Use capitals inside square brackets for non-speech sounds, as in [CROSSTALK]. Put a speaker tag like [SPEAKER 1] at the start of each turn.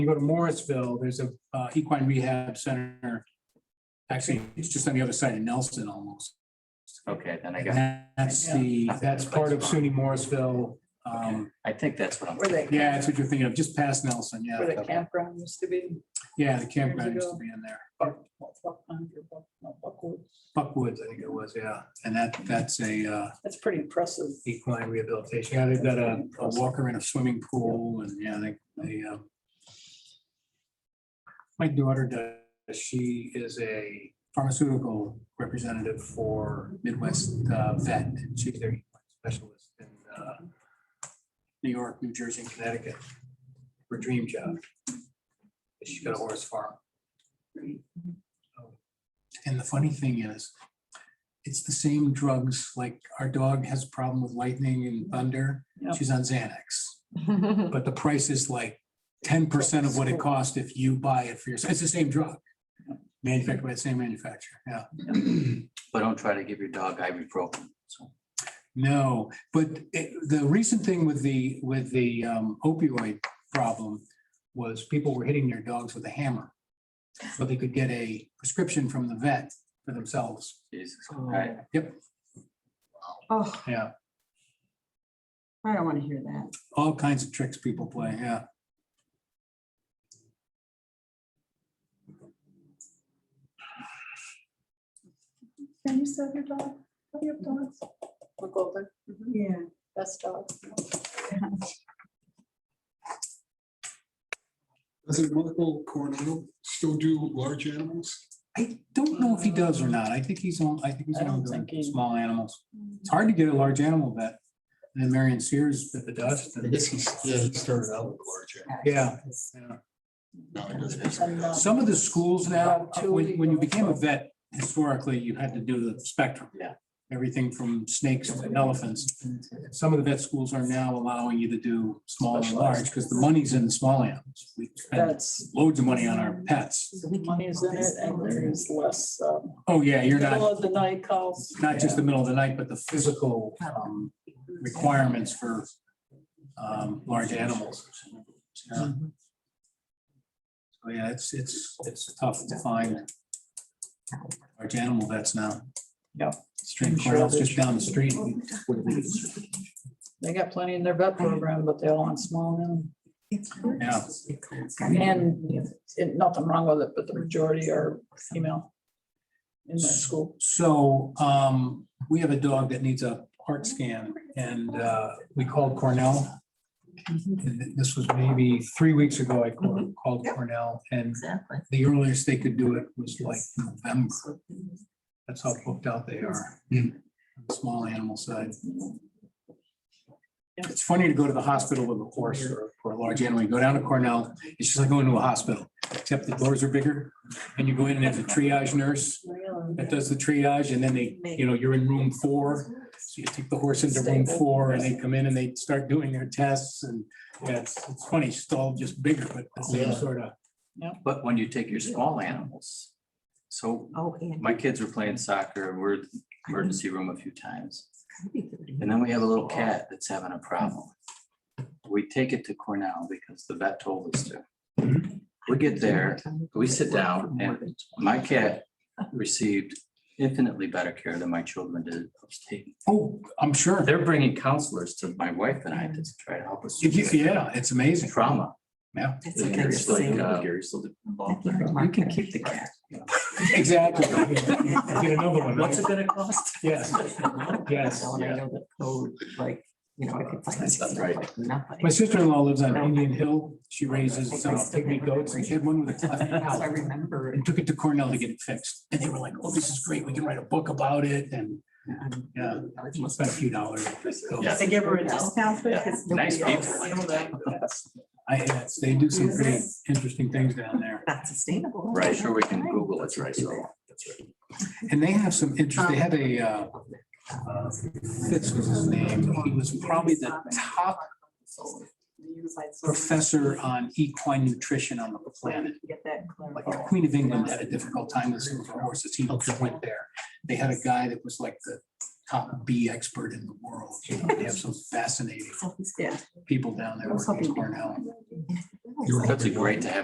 [SPEAKER 1] You go to Morrisville, there's a uh, equine rehab center. Actually, it's just on the other side of Nelson almost.
[SPEAKER 2] Okay, then I
[SPEAKER 1] And
[SPEAKER 2] got,
[SPEAKER 1] That's the, that's part of SUNY Morrisville. Um,
[SPEAKER 2] I think that's what I'm,
[SPEAKER 3] Where they.
[SPEAKER 1] yeah, that's what you're thinking of, just past Nelson,
[SPEAKER 3] Where the
[SPEAKER 1] yeah.
[SPEAKER 3] campground used to be.
[SPEAKER 1] Yeah, the campground used to be in there.
[SPEAKER 3] Buck- Buck Pond or Buck- no, Buckwoods.
[SPEAKER 1] Buckwoods, I think it was, yeah. And that, that's a uh,
[SPEAKER 3] That's pretty impressive.
[SPEAKER 1] [LAUGHS] equine rehabilitation. Yeah, they've got a a walker and a swimming pool and yeah, they, they, um, my daughter does, she is a pharmaceutical representative for Midwest uh, Vet. She's their equine specialist in uh, New York, New Jersey, and Connecticut. Her dream job. She's got a horse farm. And the funny thing is, it's the same drugs, like our dog has a problem with lightning and thunder.
[SPEAKER 3] Yep.
[SPEAKER 1] She's on Xanax, but the price is like ten percent of what it costs if you buy it for yourself. It's the same drug. Manufactured by the same manufacturer, yeah.
[SPEAKER 2] but don't try to give your dog ibuprofen. So,
[SPEAKER 1] No, but it- the recent thing with the, with the um, opioid problem was people were hitting their dogs with a hammer. So they could get a prescription from the vet for themselves.
[SPEAKER 2] Jesus, right,
[SPEAKER 1] Yep,
[SPEAKER 4] Oh,
[SPEAKER 1] yeah.
[SPEAKER 4] I don't want to hear that.
[SPEAKER 1] all kinds of tricks people play, yeah.
[SPEAKER 3] Can you sell your dog? Do you have dogs? McGolden,
[SPEAKER 4] Yeah.
[SPEAKER 3] best dog.
[SPEAKER 5] Doesn't Michael Coronado still do large animals?
[SPEAKER 1] I don't know if he does or not. I think he's on, I think he's
[SPEAKER 3] I don't
[SPEAKER 1] on
[SPEAKER 3] think he-
[SPEAKER 1] small animals. It's hard to get a large animal vet. And then Marion Sears bit the dust.
[SPEAKER 5] I
[SPEAKER 1] and-
[SPEAKER 5] guess he's, yeah, he started out with large
[SPEAKER 1] Yeah.
[SPEAKER 5] animals.
[SPEAKER 3] uh,
[SPEAKER 1] yeah. Some of the schools now, when, when you became a vet, historically, you had to do the spectrum.
[SPEAKER 2] Yeah.
[SPEAKER 1] Everything from snakes to elephants. Some of the vet schools are now allowing you to do small and large because the money's in the small animals. We spend
[SPEAKER 3] That's,
[SPEAKER 1] loads of money on our pets.
[SPEAKER 3] money is in it and there is less, um,
[SPEAKER 1] Oh, yeah, you're not.
[SPEAKER 3] middle of the night calls.
[SPEAKER 1] not just the middle of the night, but the physical um, requirements for um, large animals. Yeah. So, yeah, it's, it's, it's tough to find large animal vets now.
[SPEAKER 3] Yeah.
[SPEAKER 1] Stream Cornell's just down the street.
[SPEAKER 3] They got plenty in their vet program, but they all want small now.
[SPEAKER 1] Yeah,
[SPEAKER 3] And it- nothing wrong with it, but the majority are female in that school.
[SPEAKER 1] so um, we have a dog that needs a heart scan and uh, we called Cornell. And th- This was maybe three weeks ago, I called called Cornell and
[SPEAKER 4] Exactly.
[SPEAKER 1] the earliest they could do it was like November. That's how booked out they are. Mm. on the Small animal side. It's funny to go to the hospital with a horse or, or a large animal. You go down to Cornell, it's just like going to a hospital, except the doors are bigger. And you go in and there's a triage nurse that does the triage and then they, you know, you're in room four. So you take the horse into room four and they come in and they start doing their tests and yeah, it's, it's funny, it's all just bigger, but the same
[SPEAKER 5] Yeah.
[SPEAKER 1] sort of.
[SPEAKER 2] but when you take your small animals. So
[SPEAKER 4] Oh, and.
[SPEAKER 2] my kids were playing soccer, we're in the emergency room a few times.
[SPEAKER 4] Could be thirty.
[SPEAKER 2] And then we have a little cat that's having a problem. We take it to Cornell because the vet told us to. We get there, we sit down and my cat received infinitely better care than my children did upstate.
[SPEAKER 1] Oh, I'm sure.
[SPEAKER 2] They're bringing counselors to my wife and I to try to help us.
[SPEAKER 1] If you- Yeah, it's amazing.
[SPEAKER 2] Trauma.
[SPEAKER 1] Yeah,
[SPEAKER 4] That's what they're
[SPEAKER 2] It's like,
[SPEAKER 4] saying.
[SPEAKER 2] uh, You can keep the cat.
[SPEAKER 1] [LAUGHS] exactly. Get another one.
[SPEAKER 2] What's it gonna cost?
[SPEAKER 1] Yes, yes.
[SPEAKER 4] And I know the code, like, you know, I could find something
[SPEAKER 2] Right.
[SPEAKER 4] like nothing.
[SPEAKER 1] My sister-in-law lives on Indian Hill. She raises uh, pygmy goats and she had one with a cleft
[SPEAKER 4] That's what I
[SPEAKER 1] [LAUGHS] palate
[SPEAKER 4] remember.
[SPEAKER 1] and took it to Cornell to get it fixed. And they were like, oh, this is great. We can write a book about it and
[SPEAKER 4] um,
[SPEAKER 1] Yeah.
[SPEAKER 4] I was
[SPEAKER 1] we
[SPEAKER 4] just-
[SPEAKER 1] spent a few dollars.
[SPEAKER 2] Yeah.
[SPEAKER 4] They give her a discount.
[SPEAKER 2] Yeah.
[SPEAKER 4] because
[SPEAKER 2] Nice
[SPEAKER 4] nobody
[SPEAKER 2] people.
[SPEAKER 4] else handled it.
[SPEAKER 1] I, yes, they do some pretty interesting things down there.
[SPEAKER 4] Not sustainable.
[SPEAKER 2] [LAUGHS] Right, sure, we can Google it, right? So.
[SPEAKER 1] And they have some interest, they had a, uh, uh, Fitz was his name. He was probably the top professor on equine nutrition on the planet.
[SPEAKER 4] Get that
[SPEAKER 1] Like
[SPEAKER 4] clarified.
[SPEAKER 1] the Queen of England had a difficult time with some of her horses. He just went there. They had a guy that was like the top bee expert in the world. You know, They have some fascinating
[SPEAKER 4] Yeah.
[SPEAKER 1] people down there
[SPEAKER 4] I was
[SPEAKER 1] working at
[SPEAKER 4] hoping-
[SPEAKER 1] Cornell.
[SPEAKER 2] That's a great to have